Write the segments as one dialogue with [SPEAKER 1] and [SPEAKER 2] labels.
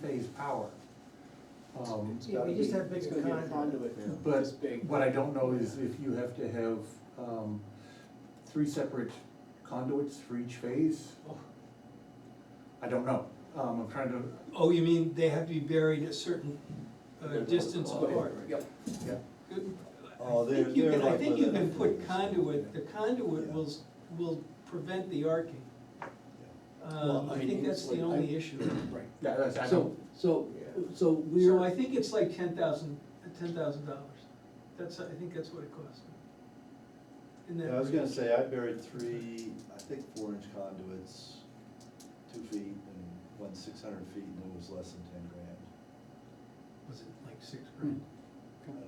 [SPEAKER 1] phase power. Um,
[SPEAKER 2] It's
[SPEAKER 3] Yeah,
[SPEAKER 2] gotta
[SPEAKER 3] we just
[SPEAKER 2] be-
[SPEAKER 3] have
[SPEAKER 2] it's
[SPEAKER 3] bigger
[SPEAKER 2] gonna be a
[SPEAKER 3] conduit.
[SPEAKER 2] conduit,
[SPEAKER 1] But
[SPEAKER 2] this big.
[SPEAKER 1] What I don't know is if you have to have, um, three separate conduits for each phase.
[SPEAKER 2] Oh.
[SPEAKER 1] I don't know, um, I'm trying to,
[SPEAKER 4] Oh, you mean they have to be buried a certain uh,
[SPEAKER 2] They're
[SPEAKER 4] distance
[SPEAKER 2] clogged.
[SPEAKER 4] apart?
[SPEAKER 2] Yep.
[SPEAKER 1] yeah,
[SPEAKER 4] Good.
[SPEAKER 5] Oh,
[SPEAKER 4] I think
[SPEAKER 5] they're-
[SPEAKER 4] you
[SPEAKER 5] they're
[SPEAKER 4] can- I
[SPEAKER 5] like
[SPEAKER 4] think
[SPEAKER 5] with
[SPEAKER 4] you
[SPEAKER 5] a-
[SPEAKER 4] can put conduit, the conduit
[SPEAKER 5] Yeah.
[SPEAKER 4] will, s- will prevent the arcing.
[SPEAKER 2] Well,
[SPEAKER 4] Um,
[SPEAKER 2] I
[SPEAKER 4] I
[SPEAKER 2] mean,
[SPEAKER 4] think
[SPEAKER 2] it's
[SPEAKER 4] that's the
[SPEAKER 2] like- I-
[SPEAKER 4] only issue.
[SPEAKER 2] Right.
[SPEAKER 1] yeah, that's, I
[SPEAKER 2] So,
[SPEAKER 1] don't,
[SPEAKER 2] so, so
[SPEAKER 4] So I
[SPEAKER 2] we're,
[SPEAKER 4] think it's like ten thousand, ten thousand dollars. That's, I think that's what it costs. In that
[SPEAKER 5] Yeah, I was gonna
[SPEAKER 4] range.
[SPEAKER 5] say, I buried three, I think four inch conduits, two feet and one six hundred feet, and it was less than ten grand.
[SPEAKER 4] Was it like six grand?
[SPEAKER 5] I don't know.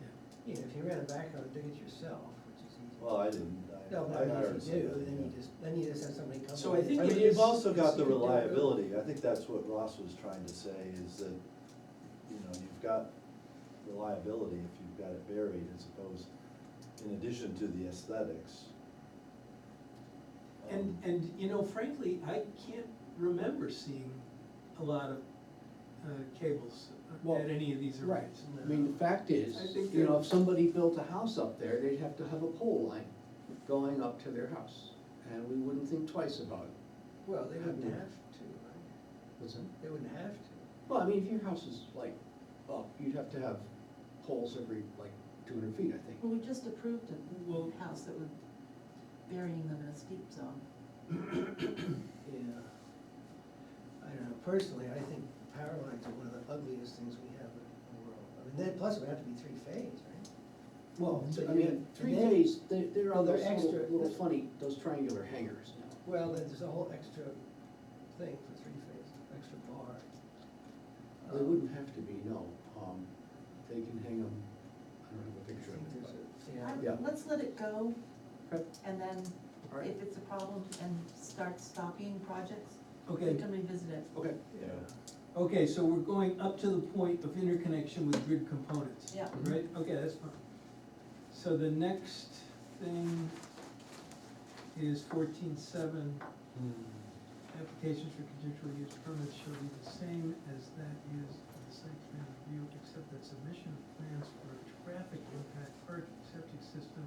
[SPEAKER 4] Yeah.
[SPEAKER 3] You know, if you ran a backhoe, dig it yourself, which is easy.
[SPEAKER 5] Well, I didn't, I,
[SPEAKER 3] No,
[SPEAKER 5] I
[SPEAKER 3] but
[SPEAKER 5] hired
[SPEAKER 3] if you do, then you
[SPEAKER 5] somebody.
[SPEAKER 3] just, then you just have somebody come.
[SPEAKER 4] So I
[SPEAKER 3] in.
[SPEAKER 4] think
[SPEAKER 5] I
[SPEAKER 4] it
[SPEAKER 5] mean,
[SPEAKER 4] is-
[SPEAKER 5] you've also got
[SPEAKER 4] you
[SPEAKER 5] the
[SPEAKER 4] can do it.
[SPEAKER 5] reliability, I think that's what Ross was trying to say, is that, you know, you've got reliability if you've got it buried, as opposed, in addition to the aesthetics.
[SPEAKER 4] And,
[SPEAKER 5] Um,
[SPEAKER 4] and, you know, frankly, I can't remember seeing a lot of uh, cables
[SPEAKER 2] Well,
[SPEAKER 4] at any of these
[SPEAKER 2] right,
[SPEAKER 4] arrays.
[SPEAKER 2] I mean, the fact is,
[SPEAKER 4] I think
[SPEAKER 2] you know,
[SPEAKER 4] they're-
[SPEAKER 2] if somebody built a house up there, they'd have to have a pole line going up to their house, and we wouldn't think twice about it.
[SPEAKER 3] Well, they wouldn't have to, right?
[SPEAKER 2] Was it?
[SPEAKER 3] They wouldn't have to.
[SPEAKER 2] Well, I mean, if your house is like, up, you'd have to have poles every, like, two hundred feet, I think.
[SPEAKER 6] Well, we just approved
[SPEAKER 4] Well-
[SPEAKER 6] a house that was burying them in a steep zone.
[SPEAKER 3] Yeah. I don't know, personally, I think power lines are one of the ugliest things we have in the world. I mean, then, plus it would have to be three phase, right?
[SPEAKER 2] Well,
[SPEAKER 3] so
[SPEAKER 2] I
[SPEAKER 3] you-
[SPEAKER 2] mean,
[SPEAKER 3] and
[SPEAKER 2] three
[SPEAKER 3] then-
[SPEAKER 2] phase, they're, they're
[SPEAKER 3] Oh,
[SPEAKER 2] on
[SPEAKER 3] they're
[SPEAKER 2] those
[SPEAKER 3] extra.
[SPEAKER 2] little, little funny, those triangular hangers now.
[SPEAKER 3] Well, then there's a whole extra thing for three phase, extra bar.
[SPEAKER 2] They
[SPEAKER 3] Um,
[SPEAKER 2] wouldn't have to be, no, um, they can hang them, I don't have a
[SPEAKER 3] I
[SPEAKER 2] picture
[SPEAKER 3] think
[SPEAKER 2] of
[SPEAKER 3] Um, there's
[SPEAKER 2] it.
[SPEAKER 3] a-
[SPEAKER 6] I-
[SPEAKER 3] yeah.
[SPEAKER 2] Yeah.
[SPEAKER 6] Let's let it go,
[SPEAKER 2] but- Okay,
[SPEAKER 6] and then
[SPEAKER 2] all right,
[SPEAKER 6] if it's a problem and start stopping projects, we
[SPEAKER 4] Okay,
[SPEAKER 6] can revisit it.
[SPEAKER 2] okay.
[SPEAKER 5] Yeah.
[SPEAKER 4] okay, so we're going up to the point of interconnection with grid components.
[SPEAKER 6] Yeah.
[SPEAKER 4] Right, okay, that's fine. So the next thing is fourteen seven.
[SPEAKER 5] Hmm.
[SPEAKER 4] Applications for conditional use permits shall be the same as that used for the site plan review, except that submission of plans for a traffic impact parking septic system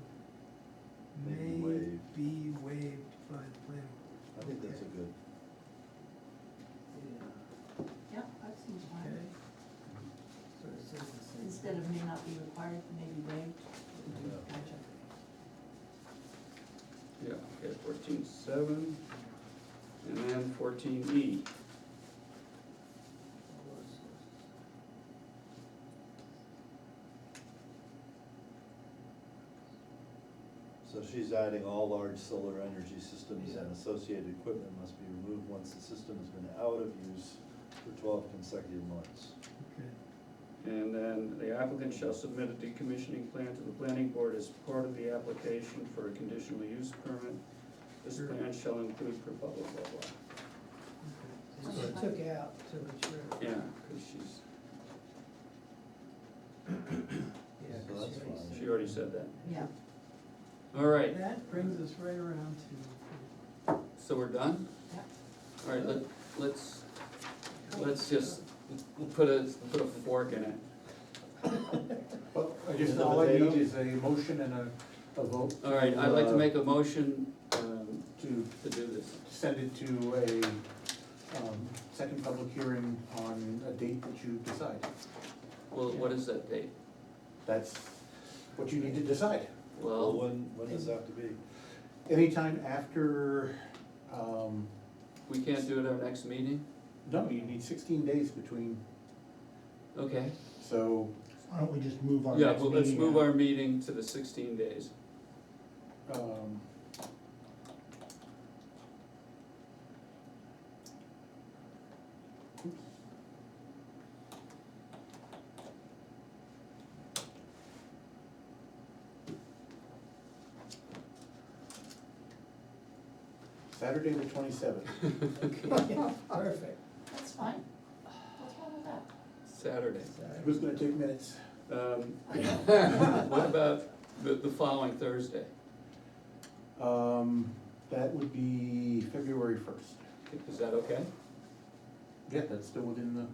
[SPEAKER 5] May
[SPEAKER 4] may
[SPEAKER 5] be waived.
[SPEAKER 4] be waived by the planning board.
[SPEAKER 5] I think that's a good.
[SPEAKER 3] Yeah.
[SPEAKER 6] Yeah, that seems
[SPEAKER 4] Okay,
[SPEAKER 6] fine.
[SPEAKER 3] So it says the same.
[SPEAKER 6] Instead of may not be required, maybe waived.
[SPEAKER 5] Yeah.
[SPEAKER 6] Gotcha.
[SPEAKER 7] Yeah, okay, fourteen seven, and then fourteen E.
[SPEAKER 5] So she's adding all large solar energy systems and associated equipment must be removed once the system has been out of use for twelve consecutive months.
[SPEAKER 4] okay.
[SPEAKER 7] And then the applicant shall submit a decommissioning plan to the planning board as part of the application for a conditional use permit. This plan shall include for blah, blah, blah, blah.
[SPEAKER 3] And she took out to mature.
[SPEAKER 7] Yeah, because she's,
[SPEAKER 3] Yeah,
[SPEAKER 5] So
[SPEAKER 3] 'cause she already
[SPEAKER 5] that's fine.
[SPEAKER 7] she already said that.
[SPEAKER 6] Yeah,
[SPEAKER 7] All right,
[SPEAKER 4] That brings us right around to,
[SPEAKER 7] so we're done?
[SPEAKER 6] yeah.
[SPEAKER 7] All right, let, let's, let's just put a, put a fork in it.
[SPEAKER 1] well, I guess
[SPEAKER 5] Another
[SPEAKER 1] all I
[SPEAKER 5] data?
[SPEAKER 1] need is a motion and a, a vote.
[SPEAKER 7] All right, I'd like to
[SPEAKER 1] uh,
[SPEAKER 7] make a motion, um,
[SPEAKER 1] To
[SPEAKER 7] to do this.
[SPEAKER 1] send it to a, um, second public hearing on a date that you decide.
[SPEAKER 7] Well, what is that date?
[SPEAKER 1] That's what you need to decide.
[SPEAKER 5] Well,
[SPEAKER 7] Well,
[SPEAKER 5] when, when does that have to be?
[SPEAKER 1] Anytime after, um,
[SPEAKER 7] we can't do it our next meeting?
[SPEAKER 1] no, you need sixteen days between,
[SPEAKER 7] Okay.
[SPEAKER 1] so,
[SPEAKER 8] Why don't we just move our
[SPEAKER 7] Yeah,
[SPEAKER 8] next
[SPEAKER 7] well, let's
[SPEAKER 8] meeting
[SPEAKER 7] move
[SPEAKER 8] out?
[SPEAKER 7] our meeting to the sixteen days.
[SPEAKER 1] um. oops. Saturday the twenty-seventh.
[SPEAKER 3] Perfect.
[SPEAKER 6] That's fine. What's wrong with that?
[SPEAKER 7] Saturday.
[SPEAKER 1] Who's gonna take minutes?
[SPEAKER 7] Um, What about the, the following Thursday?
[SPEAKER 1] Um, that would be February first.
[SPEAKER 7] Is that okay?
[SPEAKER 1] Yeah, that's still within the